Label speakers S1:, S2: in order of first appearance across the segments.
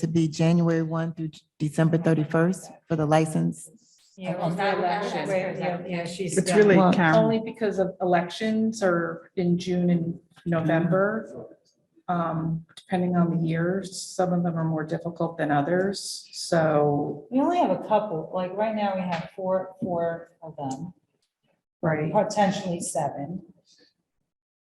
S1: to be January one through December thirty-first for the license.
S2: Yeah,
S3: Oh,
S2: without
S3: for elections.
S2: where- yeah, yeah, she's.
S4: It's
S2: done.
S4: really
S1: Well,
S4: Karen.
S3: Only because of elections are in June and November. Um, depending on the years, some of them are more difficult than others, so,
S2: We only have a couple, like right now we have four, four of them,
S3: right,
S2: potentially seven.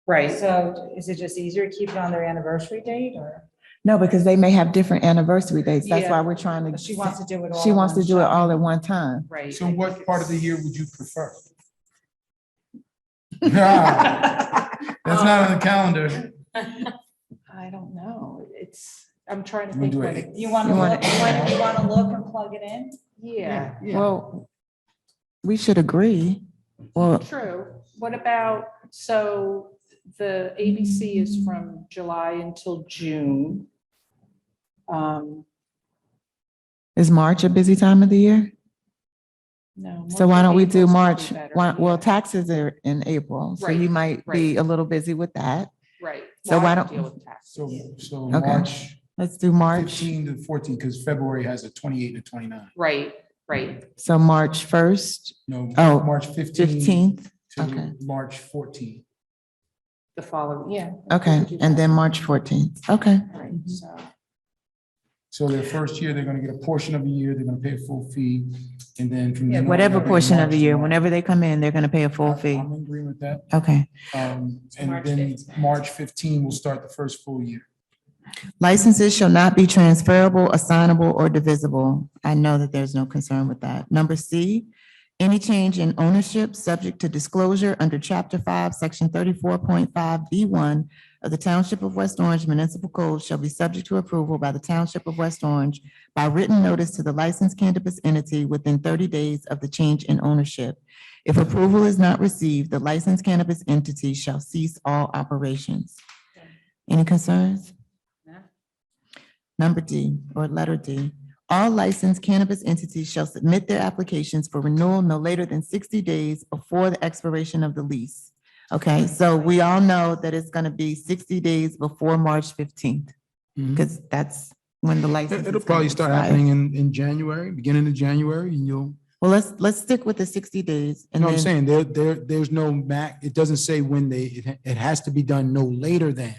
S3: right.
S2: So is it just easier to keep it on their anniversary date or
S1: No, because they may have different anniversary dates. That's why
S3: Yeah.
S1: we're trying to.
S2: she wants to do it all?
S1: She
S2: in
S1: wants to
S2: one
S1: do it
S2: shot?
S1: all at one time.
S3: Right.
S5: So what part of the year would you prefer? That's
S3: I
S5: not on the calendar.
S3: don't know, it's, I'm trying to
S5: We'll
S3: think
S5: do
S3: what
S5: it.
S3: it,
S2: You want to
S1: You
S2: look,
S1: want
S2: you want, you want to look and plug it in?
S3: yeah,
S1: Well, we should agree. Well,
S3: true. What about, so the ABC is from July until June. Um,
S1: is March a busy time of the year?
S3: no.
S1: So why don't we do
S3: April's
S1: March?
S3: probably better,
S1: Why- Well,
S3: yeah.
S1: taxes are in April, so
S3: Right,
S1: you might be
S3: right.
S1: a little busy with that.
S3: Right.
S1: So
S3: Well, I
S1: why
S3: can
S1: don't-
S3: deal with taxes.
S5: So, so
S1: Okay.
S5: March
S1: Let's do March.
S5: fifteen to fourteen, because February has a twenty-eight to twenty-nine.
S3: Right, right.
S1: So March first,
S5: No,
S1: Oh,
S5: March fifteen
S1: fifteenth. okay.
S5: to March fourteen.
S3: The following, yeah. we
S1: Okay,
S3: could do
S1: and
S3: that.
S1: then March fourteenth. Okay,
S3: Right, so,
S5: So their first year, they're gonna get a portion of the year, they're gonna pay a full fee, and then from.
S2: Yeah,
S5: then on,
S1: whatever
S5: they're gonna
S1: portion of
S5: march
S1: the year,
S5: to March.
S1: whenever they come in, they're gonna pay a full
S5: I-
S1: fee.
S5: I'm in agreement with that.
S1: Okay.
S5: Um,
S2: March
S5: and then March fifteen will start the first full year.
S1: Licenses shall not be transferable, assignable, or divisible. I know that there's no concern with that. Number C, any change in ownership subject to disclosure under Chapter Five, Section thirty-four point five B one of the Township of West Orange Municipal Code shall be subject to approval by the Township of West Orange by written notice to the licensed cannabis entity within thirty days of the change in ownership. If approval is not received, the licensed cannabis entity shall cease all operations. Any concerns? Number D, or letter D, all licensed cannabis entities shall submit their applications for renewal no later than sixty days before the expiration of the lease. Okay, so we all know that it's gonna be sixty days before March fifteenth, because that's when the license. is
S5: It'll
S1: gonna
S5: probably start
S1: expire.
S5: happening in, in January, beginning of January, and you'll,
S1: Well, let's, let's stick with the sixty days
S5: you
S1: and
S5: know what I'm
S1: then,
S5: saying? There, there, there's no mac, it doesn't say when they, it, ha- it has to be done no later than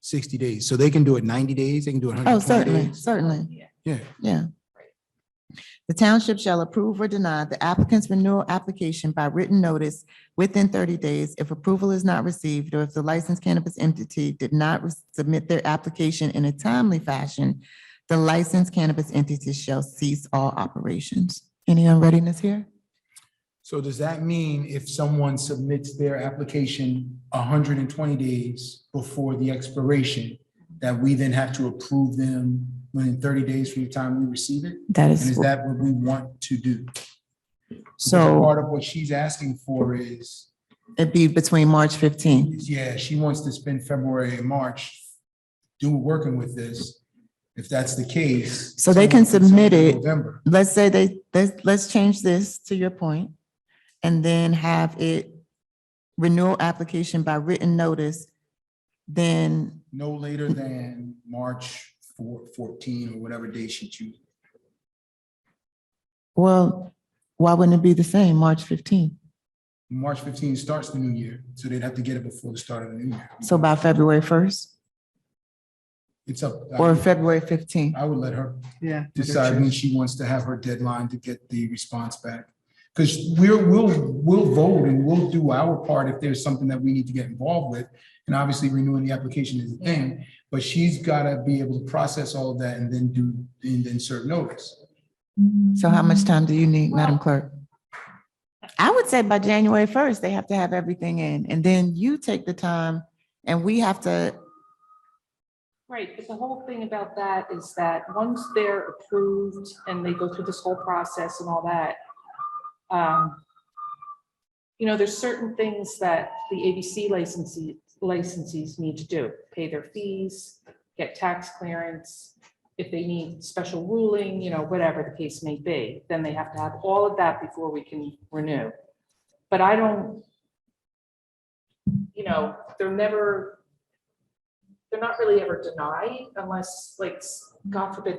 S5: sixty days. So they can do it ninety days, they can do it
S1: oh,
S5: hundred twenty
S1: certainly,
S5: days.
S1: certainly.
S5: Yeah,
S1: Yeah. The township shall approve or deny the applicant's renewal application by written notice within thirty days if approval is not received or if the licensed cannabis entity did not re- submit their application in a timely fashion, the licensed cannabis entity shall cease all operations. Any unreadiness here?
S5: so does that mean if someone submits their application hundred and twenty days before the expiration, that we then have to approve them within thirty days from the time we receive it?
S1: That
S5: And is
S1: is,
S5: that what we want to do?
S1: so
S5: Part of what she's asking for is,
S1: it'd be between March fifteenth.
S5: yeah, she wants to spend February and March do working with this. If that's the case.
S1: So they can
S5: someone
S1: submit
S5: in
S1: it.
S5: November.
S1: let's say they, let's, let's change this to your point, and then have it renewal application by written notice, then,
S5: No later than March four, fourteen, or whatever day she chooses.
S1: well, why wouldn't it be the same, March fifteenth?
S5: March fifteen starts the new year, so they'd have to get it before the start of the new year.
S1: So by February first
S5: It's up.
S1: or February fifteenth?
S5: I would let her
S4: Yeah.
S5: decide when she wants to have her deadline to get the response back. Because we're, we'll, we'll vote and we'll do our part if there's something that we need to get involved with. And obviously renewing the application is a thing, but she's gotta be able to process all of that and then do, and then serve notice.
S1: So how much time do you need, Madam Clerk? I would say by January first, they have to have everything in, and then you take the time, and we have to,
S3: Right, but the whole thing about that is that once they're approved and they go through this whole process and all that, um, you know, there's certain things that the ABC licensee, licensees need to do, pay their fees, get tax clearance. If they need special ruling, you know, whatever the case may be, then they have to have all of that before we can renew. But I don't, you know, they're never, they're not really ever denied unless, like, God forbid,